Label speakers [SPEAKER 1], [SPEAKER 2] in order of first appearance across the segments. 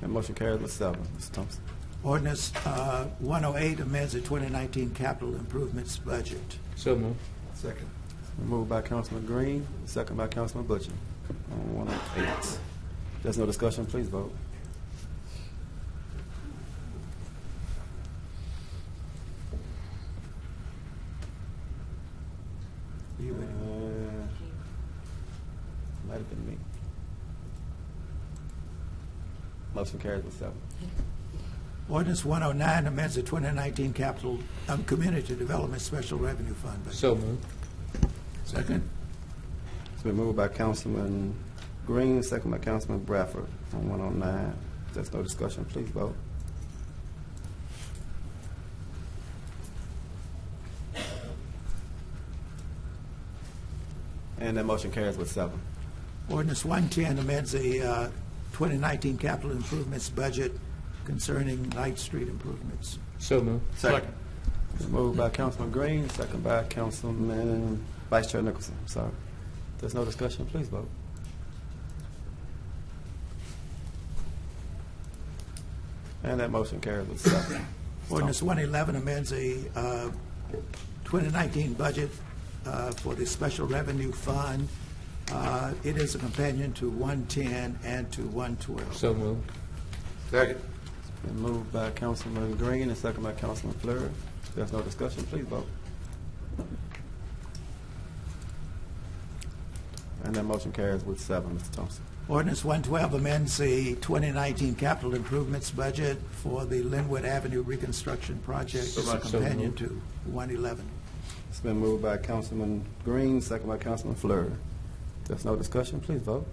[SPEAKER 1] That motion carries with seven. Mr. Thompson.
[SPEAKER 2] Ordinance uh, 108 amends the 2019 capital improvements budget.
[SPEAKER 3] So moved.
[SPEAKER 2] Second.
[SPEAKER 1] Moved by Councilman Green, second by Councilman Butcher on 108. There's no discussion, please vote.
[SPEAKER 2] You
[SPEAKER 1] Uh,
[SPEAKER 2] would-
[SPEAKER 1] Might have been me. Motion carries with seven.
[SPEAKER 2] Ordinance 109 amends the 2019 capital, um, community development special revenue fund budget.
[SPEAKER 3] So moved.
[SPEAKER 2] Second.
[SPEAKER 1] It's been moved by Councilman Green, second by Councilman Bradford on 109. There's no discussion, please vote. And that motion carries with seven.
[SPEAKER 2] Ordinance 110 amends the uh, 2019 capital improvements budget concerning Light Street improvements.
[SPEAKER 3] So moved.
[SPEAKER 1] Second. Moved by Councilman Green, second by Councilman Vice Chair Nicholson, I'm sorry. There's no discussion, please vote. And that motion carries with seven.
[SPEAKER 2] Ordinance 111 amends the uh, 2019 budget uh, for the special revenue fund. Uh, It is a companion to 110 and to 112.
[SPEAKER 3] So moved.
[SPEAKER 1] Been moved by Councilman Green and second by Councilman Fleury. There's no discussion, please vote. And that motion carries with seven, Mr. Thompson.
[SPEAKER 2] Ordinance 112 amends the 2019 capital improvements budget for the Linwood Avenue reconstruction project. It's a
[SPEAKER 3] much. So
[SPEAKER 2] companion
[SPEAKER 3] moved.
[SPEAKER 2] to 111.
[SPEAKER 1] It's been moved by Councilman Green, second by Councilman Fleur. There's no discussion, please vote.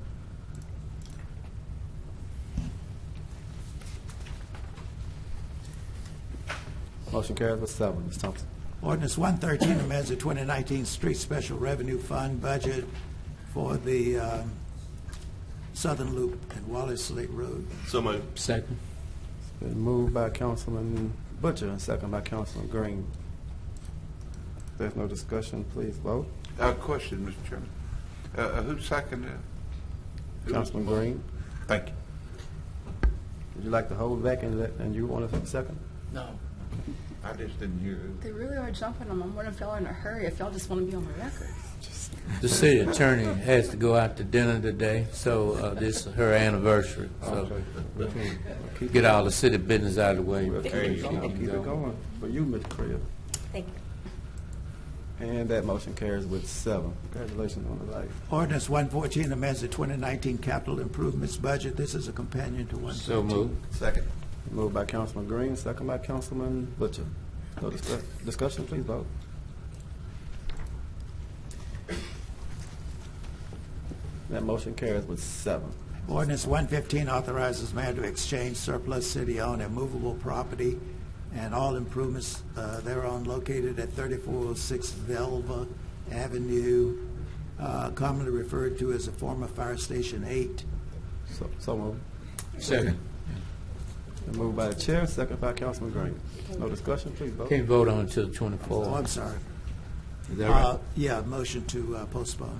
[SPEAKER 1] Motion carries with seven, Ms. Thompson.
[SPEAKER 2] Ordinance 113 amends the 2019 Street Special Revenue Fund budget for the um, Southern Loop and Wallace Lake Road.
[SPEAKER 4] So moved.
[SPEAKER 3] Second.
[SPEAKER 1] It's been moved by Councilman Butcher and second by Councilman Green. There's no discussion, please vote.
[SPEAKER 5] Uh, question, Mr. Chairman. Uh, uh, who seconded it?
[SPEAKER 1] Councilman Green,
[SPEAKER 5] Thank you.
[SPEAKER 1] would you like to hold back and let, and you want to second?
[SPEAKER 5] I just didn't hear who.
[SPEAKER 6] They really are jumping them. I'm wondering if y'all are in a hurry, if y'all just want to be on the record.
[SPEAKER 3] The city attorney has to go out to dinner today, so uh, this is her anniversary. So get all the city business out of the way.
[SPEAKER 1] We'll keep it going, keep it going for you, Ms. Crib.
[SPEAKER 7] Thank you.
[SPEAKER 1] And that motion carries with seven. Congratulations on the life.
[SPEAKER 2] Ordinance 114 amends the 2019 capital improvements budget. This is a companion to 113.
[SPEAKER 3] So moved.
[SPEAKER 5] Second.
[SPEAKER 1] Moved by Councilman Green, second by Councilman Butcher. No discuss- discussion, please vote. That motion carries with seven.
[SPEAKER 2] Ordinance 115 authorizes mayor to exchange surplus city-owned and movable property and all improvements uh, thereon located at 3406 Velva Avenue, uh, commonly referred to as the former Fire Station 8.
[SPEAKER 1] So, so moved.
[SPEAKER 3] Second.
[SPEAKER 1] Been Moved by the chair, second by Councilman Green. No discussion, please vote.
[SPEAKER 3] Can't vote on until
[SPEAKER 2] Oh, I'm
[SPEAKER 3] 24.
[SPEAKER 2] sorry.
[SPEAKER 3] Is that
[SPEAKER 2] Uh, Yeah, motion to uh, postpone.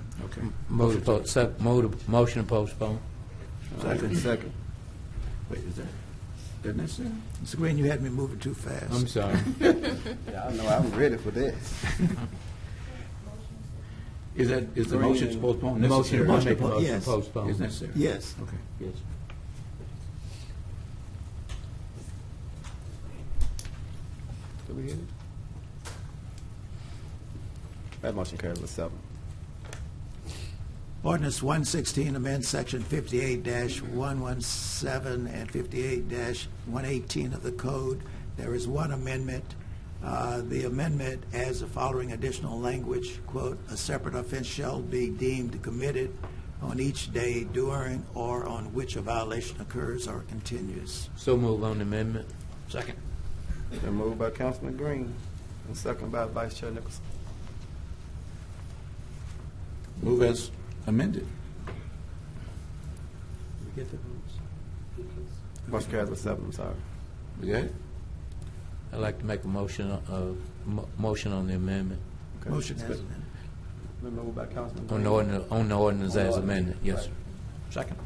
[SPEAKER 3] Motion to po- sec- mo- motion to postpone.
[SPEAKER 1] Second. Second.
[SPEAKER 8] Wait, is that, isn't that so?
[SPEAKER 2] Mr. Green, you had me moving too
[SPEAKER 3] I'm
[SPEAKER 2] fast.
[SPEAKER 3] sorry.
[SPEAKER 1] I know, I'm ready for this.
[SPEAKER 8] Is that, is the
[SPEAKER 1] Green
[SPEAKER 8] motion
[SPEAKER 1] and-
[SPEAKER 8] to postpone
[SPEAKER 3] Motion,
[SPEAKER 8] necessary?
[SPEAKER 3] I make a
[SPEAKER 2] postpone,
[SPEAKER 3] motion to
[SPEAKER 2] yes.
[SPEAKER 8] Is
[SPEAKER 3] postpone.
[SPEAKER 8] necessary?
[SPEAKER 2] Yes.
[SPEAKER 8] Okay, yes.
[SPEAKER 1] Did we hit it? That motion carries with seven.
[SPEAKER 2] Ordinance 116 amends Section 58-117 and 58-118 of the code. There is one amendment. Uh, The amendment adds the following additional language, quote, "A separate offense shall be deemed committed on each day during or on which a violation occurs or continues."
[SPEAKER 3] So move on the amendment.
[SPEAKER 1] Been moved by Councilman Green and second by Vice Chair Nicholson.
[SPEAKER 8] Move as amended.
[SPEAKER 1] Motion carries with seven, I'm sorry.
[SPEAKER 8] Is that it?
[SPEAKER 3] I'd like to make a motion, uh, mo- motion on the amendment,
[SPEAKER 1] Okay.
[SPEAKER 2] Motion
[SPEAKER 1] It's
[SPEAKER 2] has
[SPEAKER 1] been-
[SPEAKER 2] been.
[SPEAKER 1] Been moved by Councilman
[SPEAKER 3] on
[SPEAKER 1] Green
[SPEAKER 3] the ordinance, on the ordinance as amended. Yes, sir.
[SPEAKER 8] Second.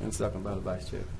[SPEAKER 1] and second by the Vice Chair.